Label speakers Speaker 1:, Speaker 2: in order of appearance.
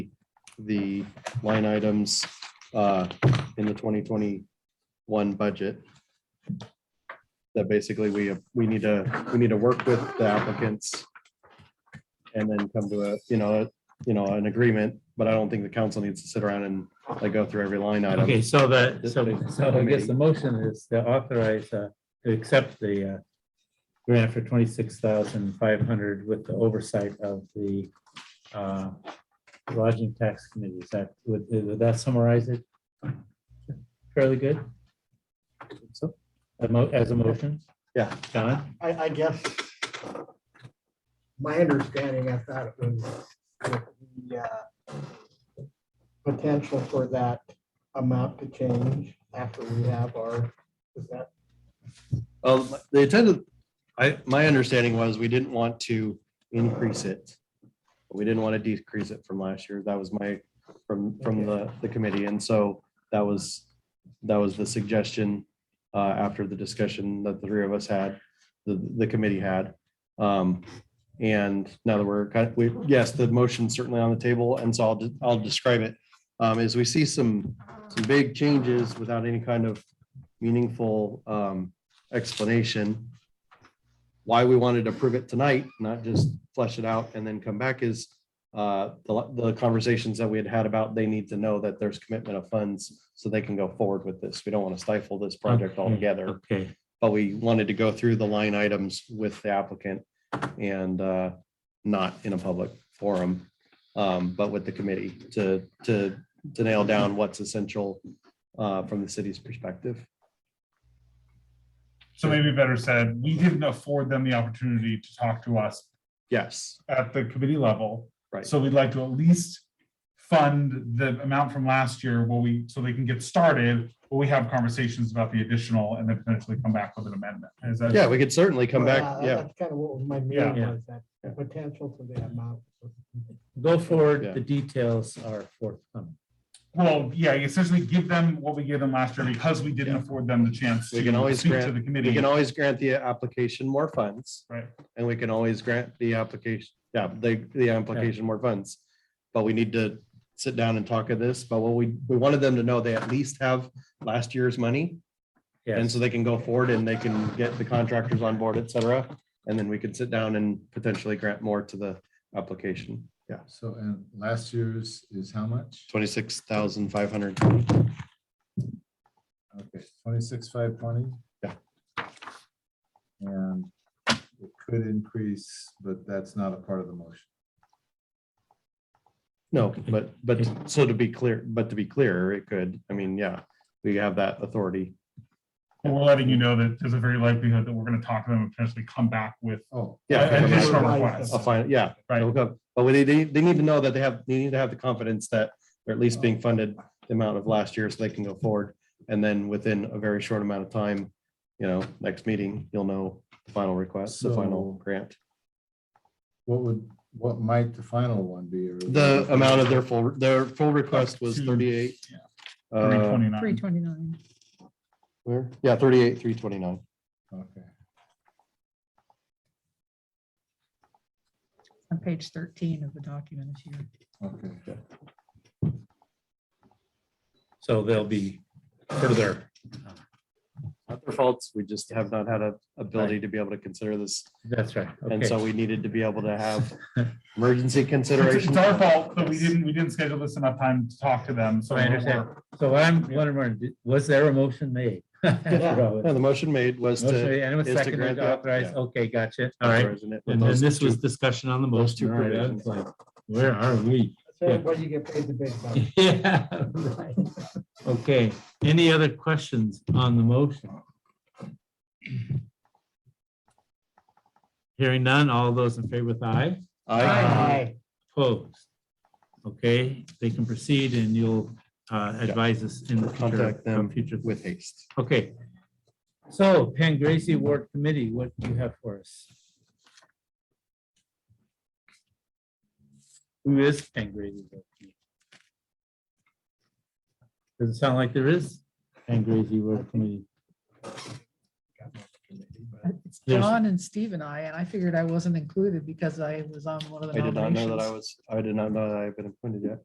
Speaker 1: the line items uh, in the twenty twenty-one budget. That basically we, we need to, we need to work with the applicants and then come to a, you know, a- you know, an agreement, but I don't think the council needs to sit around and like go through every line item.
Speaker 2: Okay, so the,
Speaker 1: This
Speaker 2: so,
Speaker 1: is-
Speaker 2: so I guess the motion is to authorize, uh, to accept the, uh, grant for twenty-six thousand five hundred with the oversight of the, uh, lodging tax committee. Is that, would, would that summarize it? Fairly good?
Speaker 1: So,
Speaker 2: A mo- As a motion?
Speaker 1: Yeah.
Speaker 2: John?
Speaker 3: I, I guess. My understanding, I thought it was that the uh, potential for that amount to change after we have our, is that,
Speaker 1: Um, the attendant, I, my understanding was we didn't want to increase it. but We didn't want to decrease it from last year. That was my, from, from the, the committee. And so that was, that was the suggestion uh, after the discussion that the three of us had, the, the committee had. Um, and now that we're, kind of- we, yes, the motion's certainly on the table. And so I'll, de- I'll describe it. Um, as we see some, some big changes without any kind of meaningful, um, explanation why we wanted to prove it tonight, not just flesh it out and then come back is uh, the the conversations that we had had about they need to know that there's commitment of funds so they can go forward with this. We don't want to stifle this project
Speaker 2: Okay,
Speaker 1: altogether,
Speaker 2: Okay,
Speaker 1: but we wanted to go through the line items with the applicant and uh, not in a public forum, um, but with the committee to to to nail down what's essential uh, from the city's perspective.
Speaker 4: So maybe better said, we didn't afford them the opportunity to talk to us
Speaker 1: Yes,
Speaker 4: at the committee level.
Speaker 1: Right.
Speaker 4: So we'd like to at least fund the amount from last year while we, so they can get started, while we have conversations about the additional and then potentially come back with an amendment. Is that?
Speaker 1: yeah, we could certainly come
Speaker 3: Uh,
Speaker 1: back, yeah.
Speaker 3: That's kind of what was my
Speaker 4: Yeah.
Speaker 3: meaning
Speaker 2: Yeah.
Speaker 3: was that the
Speaker 1: Yeah.
Speaker 3: potential for the amount.
Speaker 2: go forward.
Speaker 1: Yeah.
Speaker 2: The details are forthcoming.
Speaker 4: Well, yeah, you essentially give them what we gave them last year because we didn't afford them the chance
Speaker 1: We can
Speaker 4: to
Speaker 1: always
Speaker 4: speak to
Speaker 1: grant-
Speaker 4: the
Speaker 1: We
Speaker 4: committee.
Speaker 1: can always grant the application more funds.
Speaker 4: Right.
Speaker 1: And we can always grant the application, yeah, the, the application more funds. But we need to sit down and talk of this, but what we, we wanted them to know they at least have last year's money. And
Speaker 2: Yes,
Speaker 1: so they can go forward and they can get the contractors on board, et cetera. And then we can sit down and potentially grant more to the application. Yeah,
Speaker 5: So, and last year's is how much?
Speaker 1: twenty-six thousand five hundred.
Speaker 5: Okay, twenty-six, five twenty?
Speaker 1: Yeah.
Speaker 5: And it could increase, but that's not a part of the motion.
Speaker 1: No, but, but so to be clear, but to be clear, it could, I mean, yeah, we have that authority.
Speaker 4: But We're letting you know that there's a very likelihood that we're going to talk to them and potentially come back with
Speaker 5: Oh,
Speaker 1: Yeah. Uh, come
Speaker 4: an
Speaker 1: back.
Speaker 4: additional
Speaker 3: Right.
Speaker 4: request.
Speaker 1: A final, yeah,
Speaker 4: Right.
Speaker 1: it'll go. but we- they, they, they need to know that they have, they need to have the confidence that they're at least being funded the amount of last year so they can go forward. And then within a very short amount of time, you know, next meeting, you'll know the final request, the final
Speaker 5: So-
Speaker 1: grant.
Speaker 5: what would, what might the final one be? or-
Speaker 1: The amount of their full, their full request was
Speaker 4: Two,
Speaker 1: thirty-eight.
Speaker 4: yeah,
Speaker 1: uh,
Speaker 4: 329.
Speaker 6: Three twenty-nine.
Speaker 1: Where? Yeah, thirty-eight, three twenty-nine.
Speaker 5: Okay,
Speaker 6: On page thirteen of the document this year.
Speaker 5: okay.
Speaker 2: so there'll be further.
Speaker 1: Not their faults, we just have not had a ability to be able to consider this.
Speaker 2: That's right.
Speaker 1: And
Speaker 2: Okay.
Speaker 1: so we needed to be able to have emergency
Speaker 4: It's
Speaker 1: consideration.
Speaker 4: it's our fault that we didn't, we didn't schedule this enough time to talk to them. So
Speaker 2: I understand. So I'm wondering, Martin, did- was there a motion made?
Speaker 1: Yeah,
Speaker 2: Motion
Speaker 1: the motion made was to.
Speaker 2: made, And it was
Speaker 1: is to grant
Speaker 2: seconded,
Speaker 1: the-
Speaker 2: authorized,
Speaker 1: yeah.
Speaker 2: okay, gotcha, all right.
Speaker 1: authorizing it with
Speaker 2: And then
Speaker 1: those
Speaker 2: this was
Speaker 1: two-
Speaker 2: discussion on the
Speaker 1: those
Speaker 2: motion,
Speaker 1: two
Speaker 2: all right, I
Speaker 1: provisions.
Speaker 2: was like, where are we?
Speaker 3: So everybody you get paid the big bucks.
Speaker 2: Yeah, right. Okay, any other questions on the motion? Hearing none, all those in favor with aye?
Speaker 3: Aye.
Speaker 2: Opposed? Okay, they can proceed and you'll uh, advise us in the future,
Speaker 1: Contact them
Speaker 2: on future
Speaker 1: with haste.
Speaker 2: Okay. So Pan Gracie Ward Committee, what do you have for us? Who is Pan Gracie? Ward Committee? Doesn't sound like there is Pan Gracie Ward Committee.
Speaker 6: It's
Speaker 2: There's-
Speaker 6: John and Steve and I, and I figured I wasn't included because I was on one of
Speaker 1: I
Speaker 6: the
Speaker 1: did not know that I
Speaker 6: nominations.
Speaker 1: was, I did not know that I had been appointed yet.